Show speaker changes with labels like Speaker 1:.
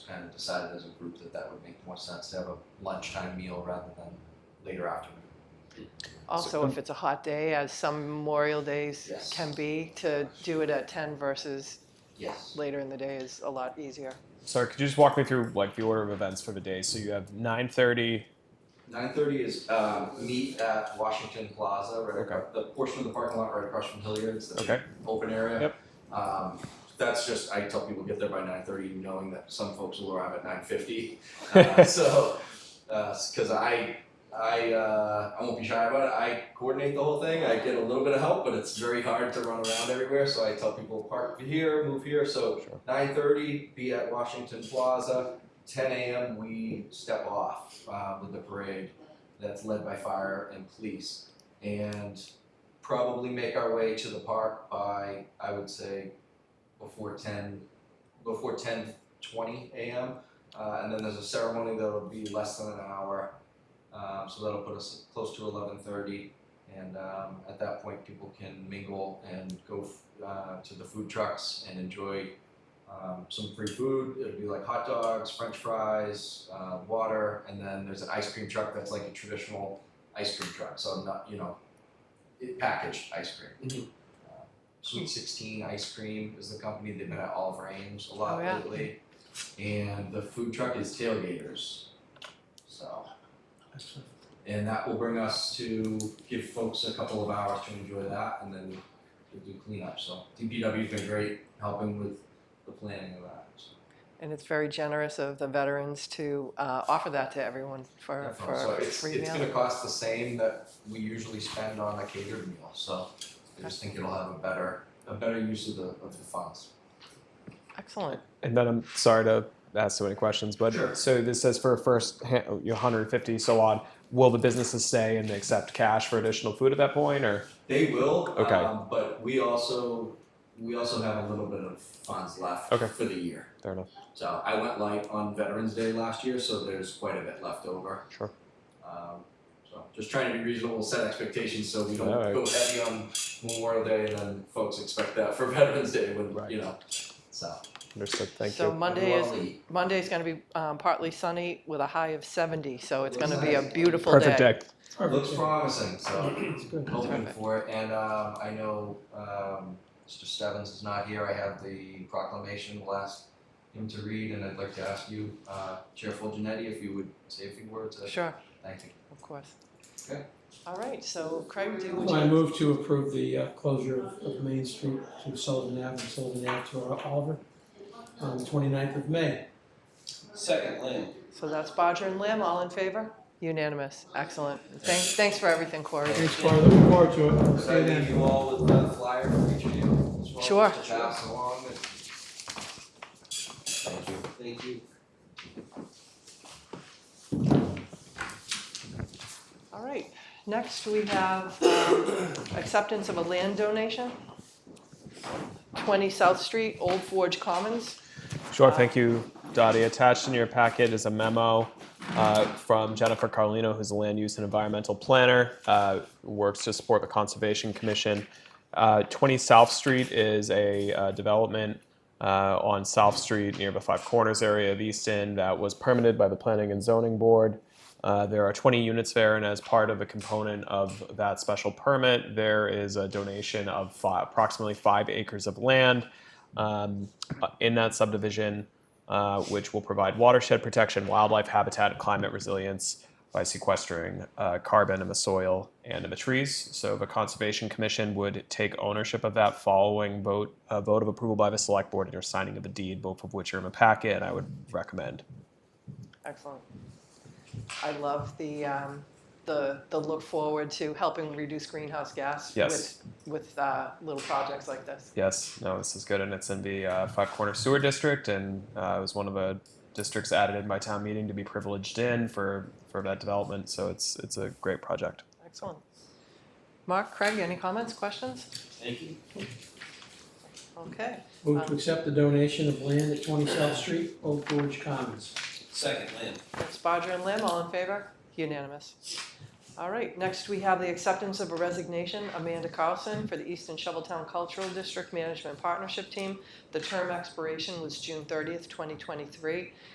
Speaker 1: kind of decided as a group that that would make more sense to have a lunchtime meal rather than later afternoon.
Speaker 2: Also, if it's a hot day, as some Memorial Days
Speaker 1: Yes.
Speaker 2: can be, to do it at ten versus
Speaker 1: Yes.
Speaker 2: later in the day is a lot easier.
Speaker 3: Sorry, could you just walk me through like the order of events for the day? So you have nine thirty.
Speaker 1: Nine thirty is uh, meet at Washington Plaza, right
Speaker 3: Okay.
Speaker 1: across, the portion of the parking lot right across from Hilliard's, the big
Speaker 3: Okay.
Speaker 1: open area.
Speaker 3: Yep.
Speaker 1: Um, that's just I tell people get there by nine thirty, knowing that some folks will arrive at nine fifty. Uh, so, because I I uh, I won't be shy about it. I coordinate the whole thing. I get a little bit of help, but it's very hard to run around everywhere. So I tell people park here, move here. So
Speaker 3: Sure.
Speaker 1: nine thirty, be at Washington Plaza. Ten a.m. we step off uh, with the parade that's led by fire and police, and probably make our way to the park by I would say before ten before ten twenty a.m. Uh, and then there's a ceremony that'll be less than an hour, um, so that'll put us close to eleven thirty. And um, at that point, people can mingle and go f- uh, to the food trucks and enjoy um, some free food. It'll be like hot dogs, French fries, uh, water, and then there's an ice cream truck that's like a traditional ice cream truck. So not you know, it packaged ice cream. Uh, Sweet Sixteen Ice Cream is the company. They've been at Oliver Ames a lot
Speaker 2: Oh, yeah.
Speaker 1: lately, and the food truck is Tailgaters. So. And that will bring us to give folks a couple of hours to enjoy that, and then we'll do cleanup. So DPW's been great helping with the planning of that. so.
Speaker 2: And it's very generous of the veterans to uh, offer that to everyone for,
Speaker 1: That's all.
Speaker 2: for
Speaker 1: So
Speaker 2: a
Speaker 1: it's,
Speaker 2: free
Speaker 1: it's
Speaker 2: meal.
Speaker 1: gonna cost the same that we usually spend on a catered meal, so I just think it'll have a better, a better use of the, of the funds.
Speaker 2: Excellent.
Speaker 3: And then I'm sorry to ask so many questions, but
Speaker 1: Sure.
Speaker 3: so this says for a first ha- oh, your 150 so on. Will the businesses stay and accept cash for additional food at that point, or
Speaker 1: They will,
Speaker 3: Okay.
Speaker 1: um, but we also, we also have a little bit of funds left
Speaker 3: Okay.
Speaker 1: for the year.
Speaker 3: fair enough?
Speaker 1: So I went light on Veterans Day last year, so there's quite a bit left over.
Speaker 3: Sure.
Speaker 1: Um, so just trying to be reasonable, set expectations, so we don't
Speaker 3: Alright.
Speaker 1: go heavy on Memorial Day, and then folks expect that for Veterans Day when
Speaker 3: Right.
Speaker 1: you know. So
Speaker 3: Understood. Thank
Speaker 2: So
Speaker 3: you.
Speaker 2: Monday is,
Speaker 1: Well, we-
Speaker 2: Monday's gonna be um, partly sunny with a high of seventy, so it's gonna be a
Speaker 1: Nice.
Speaker 2: beautiful
Speaker 3: Perfect
Speaker 2: day.
Speaker 3: day.
Speaker 1: looks promising. So
Speaker 4: good.
Speaker 1: hoping
Speaker 2: Perfect.
Speaker 1: for it, and um, I know um, Mr. Stevens is not here. I have the proclamation. We'll ask him to read, and I'd like to ask you, uh, Chair Fulgenetti, if you would say a few words. Uh,
Speaker 2: Sure,
Speaker 1: Thank you.
Speaker 2: of course.
Speaker 1: Okay.
Speaker 2: All right, so Craig, do would you?
Speaker 4: I move to approve the uh, closure of- of Main Street to Sullivan Ave and Sullivan Ave to Oliver on the 29th of May.
Speaker 5: Second lane.
Speaker 2: So that's Bodger and Lamb, all in favor? Unanimous, excellent. Thanks, thanks for everything, Corey.
Speaker 4: Thanks, Carl, looking forward to it.
Speaker 1: Could I
Speaker 4: See you then.
Speaker 1: leave you all with a flyer for each of you as well?
Speaker 2: Sure.
Speaker 1: Just to pass along and- Thank you.
Speaker 5: Thank you.
Speaker 2: All right, next we have um, acceptance of a land donation. 20 South Street, Old Forge Commons.
Speaker 3: Sure, thank you, Dottie. Attached in your packet is a memo uh, from Jennifer Carlino, who's a land use and environmental planner, uh, who works to support the Conservation Commission. Uh, 20 South Street is a uh, development uh, on South Street near the Five Corners area of Easton that was permitted by the Planning and Zoning Board. Uh, there are 20 units there, and as part of a component of that special permit, there is a donation of fi- approximately five acres of land um, uh, in that subdivision, uh, which will provide watershed protection, wildlife habitat, and climate resilience by sequestering uh, carbon in the soil and in the trees. So the Conservation Commission would take ownership of that following vote, a vote of approval by the Select Board and your signing of the deed, both of which are in the packet, and I would recommend.
Speaker 2: Excellent. I love the, um, the, the look forward to helping reduce greenhouse gas
Speaker 3: Yes.
Speaker 2: with, with uh, little projects like this.
Speaker 3: Yes, no, this is good, and it's in the uh, Five Corner Sewer District, and uh, it was one of the districts added in my town meeting to be privileged in for, for that development, so it's, it's a great project.
Speaker 2: Excellent. Mark, Craig, any comments, questions?
Speaker 5: Thank you.
Speaker 2: Okay,
Speaker 4: Move to accept the donation of land at 20 South Street, Old Forge Commons.
Speaker 5: Second lane.
Speaker 2: that's Bodger and Lim, all in favor? Unanimous. All right, next we have the acceptance of a resignation, Amanda Carlson, for the Eastern Shoveltown Cultural District Management Partnership Team. The term expiration was June thirtieth, twenty twenty-three.